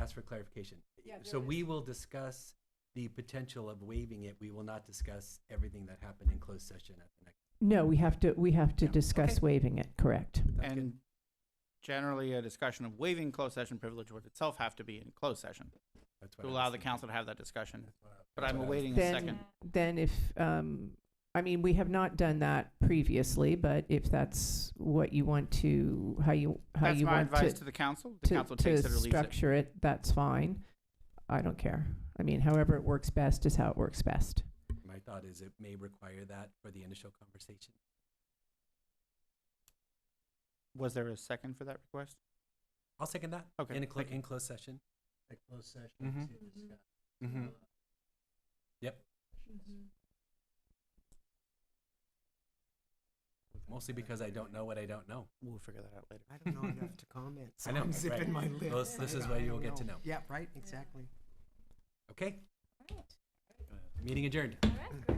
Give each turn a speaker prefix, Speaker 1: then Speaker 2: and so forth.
Speaker 1: ask for clarification.
Speaker 2: Yeah,
Speaker 1: So
Speaker 2: there
Speaker 1: we will discuss the potential of waiving it. We will not discuss everything that happened in closed session at the next.
Speaker 3: No, we have to, we have to
Speaker 1: Yeah,
Speaker 3: discuss
Speaker 1: okay.
Speaker 3: waiving it, correct.
Speaker 1: Sounds good.
Speaker 4: And generally, a discussion of waiving closed session privilege would itself have to be in closed session
Speaker 1: That's what
Speaker 4: to
Speaker 1: I
Speaker 4: allow
Speaker 1: was
Speaker 4: the
Speaker 1: thinking.
Speaker 4: council to have that discussion.
Speaker 1: That's what I-
Speaker 4: But
Speaker 1: that's
Speaker 4: I'm
Speaker 1: what I was
Speaker 4: awaiting a
Speaker 3: Then-
Speaker 4: second.
Speaker 3: Then if, um, I mean, we have not done that previously, but if that's what you want to, how you, how
Speaker 4: That's
Speaker 3: you
Speaker 4: my
Speaker 3: want
Speaker 4: advice
Speaker 3: to,
Speaker 4: to the council. The
Speaker 3: to,
Speaker 4: council takes it
Speaker 3: to
Speaker 4: or leaves it.
Speaker 3: structure it, that's fine. I don't care. I mean, however it works best is how it works best.
Speaker 1: My thought is it may require that for the initial conversation.
Speaker 4: Was there a second for that request?
Speaker 1: I'll second that.
Speaker 4: Okay,
Speaker 1: In a clo-
Speaker 4: thank you. Mm-hmm.
Speaker 1: in closed session.
Speaker 5: a closed session
Speaker 1: Mhm.
Speaker 5: to discuss.
Speaker 1: Mhm. Mostly because I don't know what I don't know.
Speaker 4: We'll figure that out later.
Speaker 5: I don't know enough to comment, so
Speaker 1: I know,
Speaker 5: I'm zipping my
Speaker 1: right.
Speaker 5: lip.
Speaker 1: Well, this- this is where
Speaker 5: I
Speaker 1: you will
Speaker 5: don't
Speaker 1: get to know.
Speaker 5: Yeah, right, exactly.
Speaker 1: Okay? Meeting adjourned.
Speaker 6: All right, great.